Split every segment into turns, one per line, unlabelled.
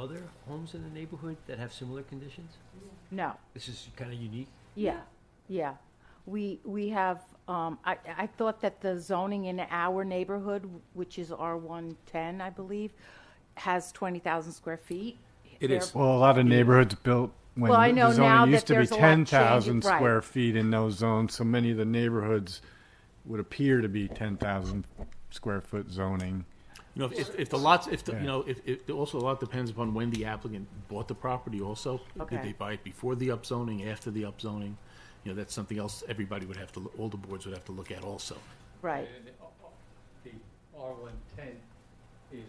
other homes in the neighborhood that have similar conditions?
No,
This is kind of unique.
yeah, yeah. We, we have, um, I, I thought that the zoning in our neighborhood, which is R one ten, I believe, has twenty thousand square feet.
It is.
There-
Well, a lot of neighborhoods built when
Well, I know
the
now
zoning
that
used to be
there's a lot changing-
ten thousand
right.
square feet in those zones, so many of the neighborhoods would appear to be ten thousand square foot zoning.
You know, if- if, if the lots, if, the
Yeah.
you know, if, if, also a lot depends upon when the applicant bought the property also. Did
Okay.
they buy it before the upzoning, after the upzoning? You know, that's something else everybody would have to, all the boards would have to look at also.
Right,
And the- uh, the R one ten is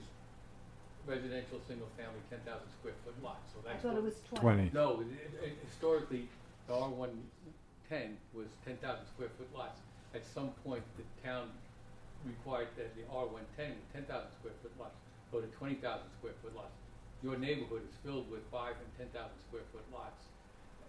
residential, single-family, ten thousand square foot lot, so that's. what-
Twenty.
No, it- it- it- historically, the R one ten was ten thousand square foot lots. At some point, the town required that the R one ten, ten thousand square foot lots, go to twenty thousand square foot lots. Your neighborhood is filled with five and ten thousand square foot lots.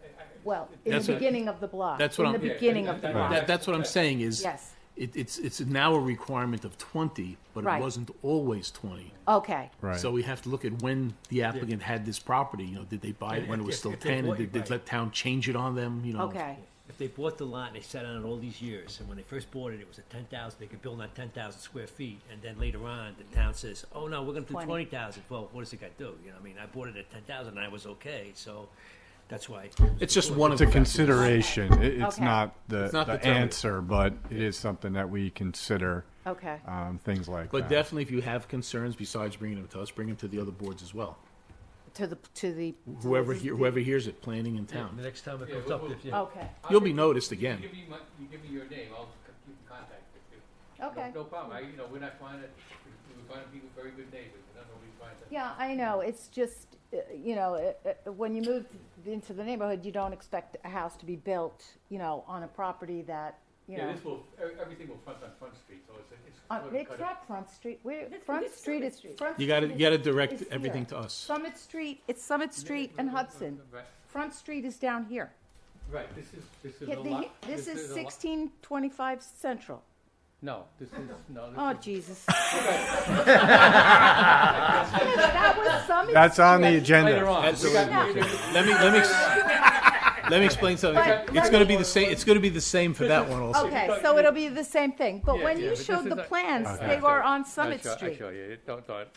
I- I-
well,
it-
in
That's
the
what-
beginning of the block.
that's what
In
I'm-
the
Yeah,
beginning
that-
of the
that-
block,
That, that's what I'm saying is.
Yes.
It, it's, it's now a requirement of twenty, but it
Right.
wasn't always twenty.
okay,
Right.
So we have to look at when the applicant had this property, you know, did they buy it when it was still
If- if- if they
ten? And
bought it,
did did
right.
the town change it on them, you know?
okay,
If they bought the lot and they sat on it all these years, and when they first bought it, it was a ten thousand, they could build on ten thousand square feet, and then later on, the town says, oh, no, we're gonna do
Twenty.
twenty thousand, well, what does it got to do? You know, I mean, I bought it at ten thousand, and I was okay, so that's why.
It's just one of
It's
the
a
factors.
consideration. It, it's
Okay.
not the,
It's not
the
determinative.
answer, but it is something that we consider.
okay,
Um, things like
But
that.
definitely, if you have concerns besides bringing them to us, bring them to the other boards as well.
to the, to the,
Whoever hear, whoever hears it, planning in
The
town,
next time it
Yeah,
comes
we'll-
up,
we'll-
if you.
okay,
you'll be noticed again.
You give me my, you give me your name, I'll c- keep in contact with you. No-
okay.
No problem, I, you know, we're not trying to, we- we're trying to be very good neighbors, we're not always trying to.
Yeah, I know, it's just, uh, you know, uh, uh, when you move into the neighborhood, you don't expect a house to be built, you know, on a property that, you know.
Yeah, this will, e- everything will front on Front Street, so it's, a- it's.
Uh,
sort of
It's
cut
not Front Street, we're,
That's-
Front
that's
Street
Summit
is,
Street.
Front.
You gotta, you
Street
gotta
is-
direct
is
everything
here.
to us.
Summit Street, it's Summit
Yeah,
Street
yeah,
and
yeah,
Hudson.
Right,
Front Street is down here.
right, this is, this is
Yeah,
a
the-
lot.
This is
a lot-
sixteen twenty-five Central.
No, this is, no, this is.
Oh, Jesus. That was Summit.
That's on the
Street.
agenda.
Later on.
That's
We
what
got- we got-
Let me, let me, ex- let me explain something. It's gonna be the same, it's gonna be the same for that one also.
Okay, so it'll be the same thing, but
Yeah,
when
yeah,
you
but this
showed
is
the
a-
plans,
Okay.
they were on
I'll
Summit
show- I'll
Street.
show you. Don't, don't, Oh.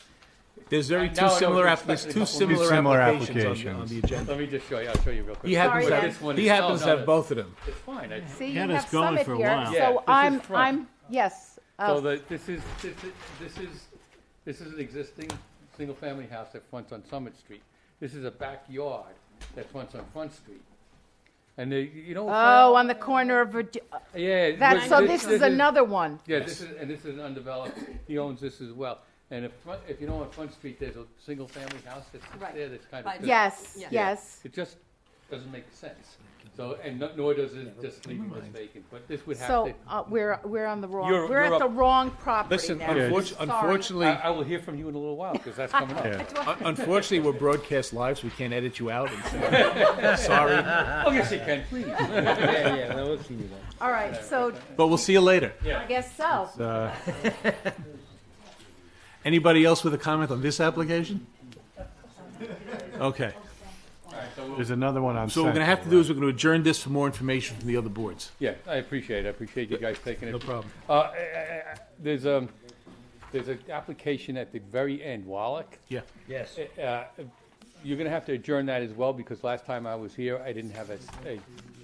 There's very
Now I
two
know what
similar,
you're
app- there's
expecting.
two similar
similar
applications on the- on
applications.
the agenda.
let me just show you, I'll show you real quick.
He happens,
Sorry,
to
Dan.
This one
have-
is-
he happens
no,
to
no,
have both of them.
It's fine, I-
See, you
Had
have
us going
Summit
for a
here,
while.
so
Yeah, this is
I'm,
Front.
I'm, yes.
So
uh,
the, this is, this is, this is, this is an existing single-family house that fronts on Summit Street. This is a backyard that fronts on Front Street. And they, you know.
Oh, on the corner of, Virgi- uh,
Yeah.
that,
thi-
so this is another one.
Yeah, this is, and this is undeveloped, he owns this as well. And if, front- if you know on Front Street, there's a single-family house that's
Right.
there that's kind
By
of.
the-
Yes,
Yeah.
yes.
It just doesn't make sense. So, and no- nor does it just leaving this vacant, but this would have
So,
to.
uh, we're, we're on the wrong,
You're-
we're
you're
at the
up-
wrong property
Listen,
now.
unfortunately,
Sorry.
I,
unfortunately,
I will hear from you in a little while, because that's coming up.
Yeah.
Un- Unfortunately, we're broadcast live, so we can't edit you out. And Sorry,
Oh, yes, you can, please.
All right, so
but we'll see you later.
I guess so.
Uh,
Anybody else with a comment on this application? Okay,
there's another one on.
so what we're gonna have to
Central,
do is we're gonna adjourn this for more information from the other boards.
Yeah, I appreciate it. I appreciate you guys taking it.
No problem.
Uh, I- I- I- There's, um, there's an application at the very end, Wallach.
Yeah.
Yes.
Uh, You're gonna have to adjourn that as well, because last time I was here, I didn't have a, s- a-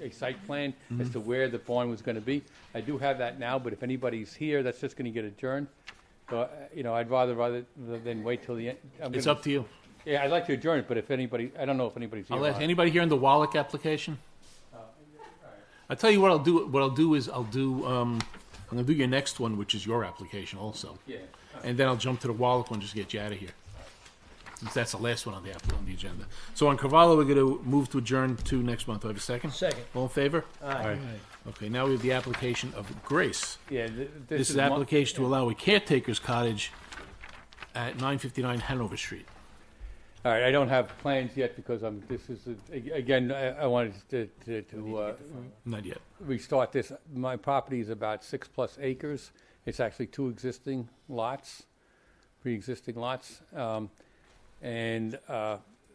a site plan
Mm-hmm.
as to where the barn was gonna be. I do have that now, but if anybody's here, that's just gonna get adjourned. So, uh, you know, I'd rather, rather than wait till the end. I'm
It's
gonna-
up to you.
Yeah, I'd like to adjourn it, but if anybody, I don't know if anybody's here.
I'll
or
ask,
not.
anybody here on the Wallach application? Uh, I'll tell you what I'll do, what I'll do is I'll do, um, I'm gonna do your next one, which is your application also.
Yeah.
And then I'll jump to the Wallach one, just to get you out of here. Since that's the last one on the, app- on the agenda. So on Carvallo, we're gonna move to adjourn to next month. Do I have a second?
Second.
All in favor?
right?
Okay, now we have the application of Grace.
Yeah, th-
This is
mo-
application to allow a caretaker's cottage at nine fifty-nine Hanover Street.
All right, I don't have plans yet because I'm, this is, a- ag- again, I I wanted to, to- to uh,
Not yet.
restart this. My property is about six-plus acres. It's actually two existing lots, pre-existing lots. Um, and uh,